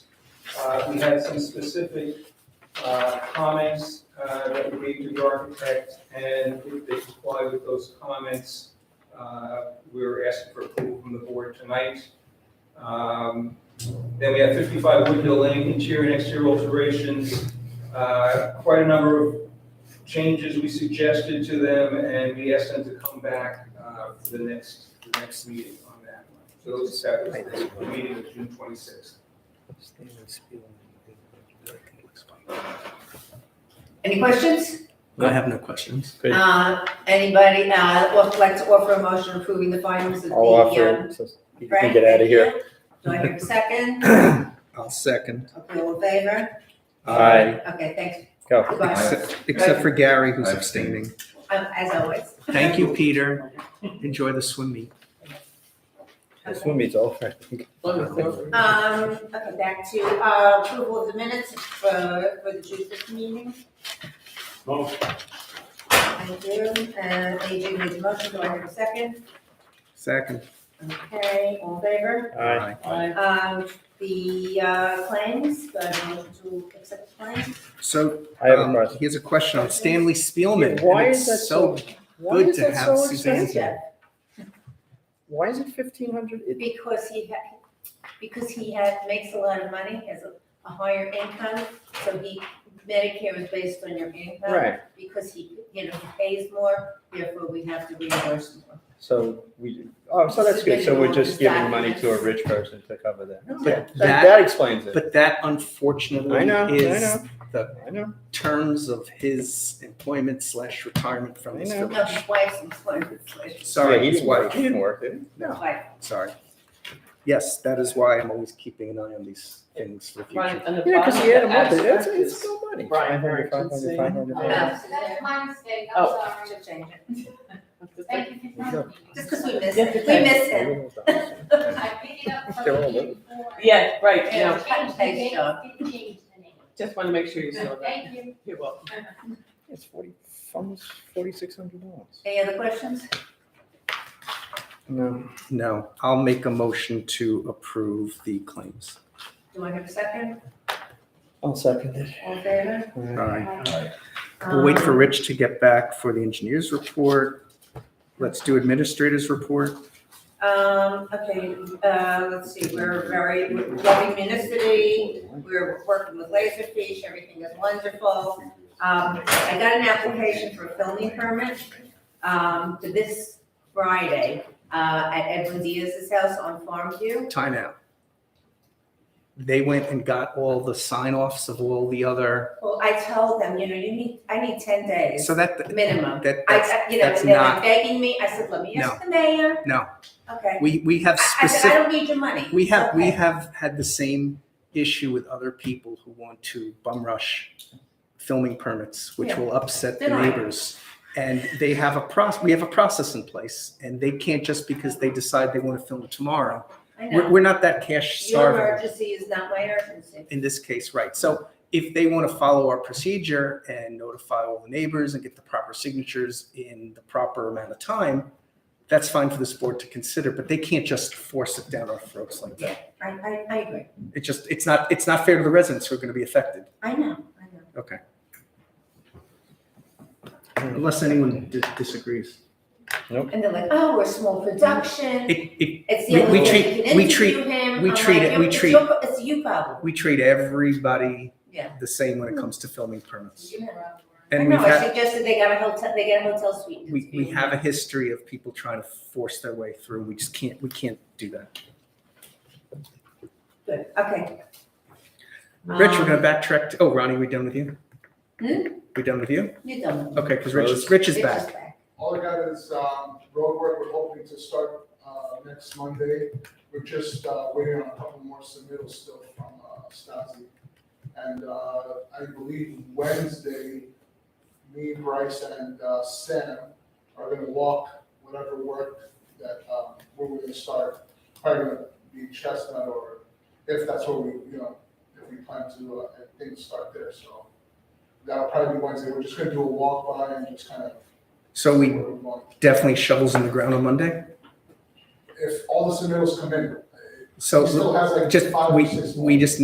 Uh, We had some specific uh, comments uh, that we gave to the architect, and if they comply with those comments, uh, we're asking for approval from the board tonight. Um, Then we have 55 Woodville Lane, interior and exterior alterations. Uh, Quite a number of changes we suggested to them, and we asked them to come back uh, for the next, the next meeting on that one. So those- that was the meeting of June 26th. Any questions? I have no questions. Great. Uh, Anybody, uh, would like to offer a motion approving the findings of the. I'll offer, um, it, so you can Frank, get out of here. Do I hear a second? I'll second. Uh, Okay, all in favor? Aye, Okay, thanks. go. Goodbye, Except, except for Gary, who's I've abstaining. Um, as always. Thank you, Peter. Enjoy the swim meet. The swim meet's over, I think. Um, okay, back to, uh, approval of the minutes for, for the June fifth meeting. Thank you, and AJ Uh, made the motion, do I hear a second? Second. Okay, all in favor? Aye, Aye. Um, the, uh, claims, do I have a motion to accept the claims? So, I have a um, question. he has a question on Stanley Spielman. and Why is it's that so, why good is to that have so Suzanne here. expensive? Why is it fifteen hundred? Because he had, because he had, makes a lot of money, has a, a higher income, so he, Medicare is based on your income. Right, Because he, you know, he pays more, therefore we have to reimburse more. so we, oh, so that's good, so we're just giving money to a Exactly. rich person to cover that. But That- that, That explains it. but that unfortunately I know, I is know. the I know, terms of his employment slash retirement from this I know. village. No, his wife's employment, slash, yeah, Sorry, he his didn't work, wife. he didn't work, did he? No. wife. Sorry. Yes, that is why I'm always keeping an eye on these things for the future. Right, and the Yeah, because bottom he had a of the month, that's, abstract it's is- still money. Brian 500, 500, Erickson. 500. Oh, Yeah. So that's my mistake, I'm Oh. sorry. Should change it. Thank you for telling me. Just because we miss Yeah, him, we okay. miss him. I picked it up from They're all you little. before. Yeah, right, yeah, And changed the date, didn't change the name. just want to make sure you saw that. Thank you. You're welcome. It's forty, almost forty-six hundred dollars. Any other questions? No. No, I'll make a motion to approve the claims. Do I have a second? I'll second it. All in favor? All right. Um, We'll wait for Rich to get back for the engineer's report. Let's do administrator's report. Um, okay, uh, let's see, we're very, we're loving Municity, we're working with Laserfish, everything is wonderful. Um, I got an application for a filming permit, um, for this Friday, uh, at Edwin Diaz's house on Farm View. Time out. They went and got all the sign offs of all the other, Well, I told them, you know, you need, I need ten days. so that. Minimum. That, I, that's, I- you know, that's and they're not- like begging me, I said, let me ask the mayor. No. Okay. we, we have I I said, I specific, don't need your money. we have, we Okay. have had the same issue with other people who want to bum rush filming permits, which Yeah. will upset the They're not. neighbors. And they have a process, we have a process in place and they can't just because they decide they want to film tomorrow I We're, know. we're not that cash Your starved emergency is not my urgency. in this case, right? So if they want to follow our procedure and notify all the neighbors and get the proper signatures in the proper amount of time, that's fine for this board to consider, but they can't just force it down our throats like that. I, I, I agree. It just, it's not, it's not fair to the residents who are going to be affected, I know, I know. unless anyone dis- disagrees. And they're like, oh, we're small production. It, it, It's we- the we only way treat- you can we treat- interview him. we I'm treat like, it- "You're- we it's treat- your pro- It's you problem. we treat everybody Yeah. the same when it comes to filming permits. You were on. I And we've know, I had, suggested they got a hotel, they got a hotel suite. we, we have a history of people trying to force their way through. We just can't, we can't do that. Good, okay. Rich, we're Um, gonna backtrack. To, oh, Ronnie, we done with you? Hmm? We done with you? You don't. Okay, because Rich is Rich is Rich back. All I got is um, road work, we're hoping to start uh, next Monday. We're just uh, waiting on a couple more submittals still from uh, Stasi. And uh, I believe Wednesday, me, Bryce, and uh, Sam are gonna walk whatever work that um, where we're gonna start. Probably gonna be Chestnut or if that's what we, you know, if we plan to, uh, if things start there, so. That'll probably be Wednesday, we're just gonna do a walk by and just kind of So we where we want. definitely shovels in the ground on Monday. If all the submittals come in, So He still has, like, just five or we six more. we just